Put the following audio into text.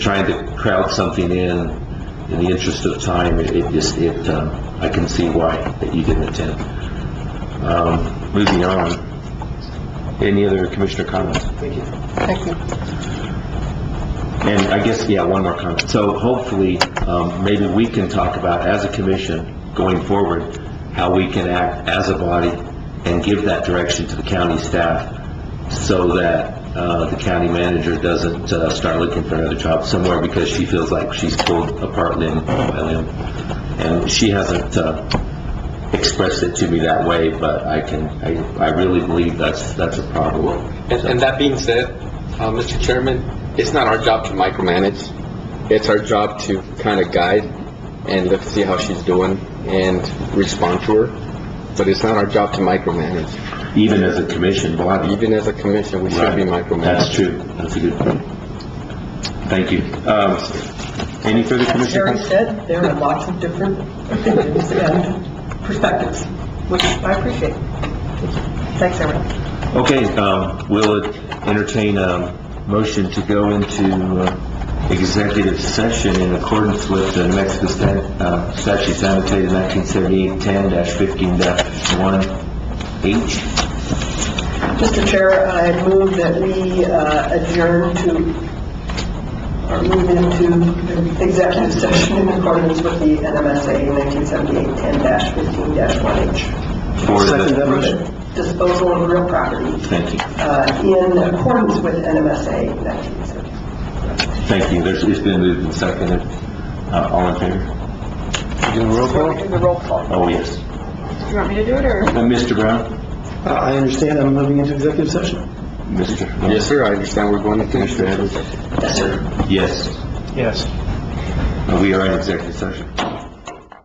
trying to crowd something in, in the interest of time, it it just, it, um, I can see why that you didn't attend. Um, Moving on, any other commissioner comments? Thank you. Thank you. And I guess, yeah, one more comment. So hopefully, um, maybe we can talk about, as a commission, going forward, how we can act as a body and give that direction to the county staff so that, uh, the county manager doesn't, uh, start looking for another job somewhere because she feels like she's pulled apart limb by limb. And she hasn't, uh, expressed it to me that way, but I can, I, I really believe that's, that's a problem. And, and that being said, uh, Mr. Chairman, it's not our job to micromanage. It's our job to kind of guide and look, see how she's doing and respond to her. But it's not our job to micromanage. Even as a commission body, Even as a commission, we should be Right. That's micromanaged. true, that's a good point. Thank you. Um, Any further As commissioner Terry comments? said, there are lots of different opinions and perspectives, which I appreciate. Thanks, everyone. Okay, um, we'll entertain a motion to go into uh, executive session in accordance with the Mexico stan- uh, statute annotated 1978-10-15-1H. Mr. Chair, I move that we uh, adjourn to, or move into executive session in accordance with the NMSA 1978-10-15-1H. for the- Disposal of real property Thank you. uh, in accordance with NMSA 1978. Thank you. There's, it's been moved and seconded. Uh, all in favor? Do roll call? Oh, yes. You want me to do it, or? Uh, Mr. Brown? I understand I'm moving into executive session. Mr. Yes, sir, I understand we're going to Commissioner Evans. Yes. Yes. We are in executive session.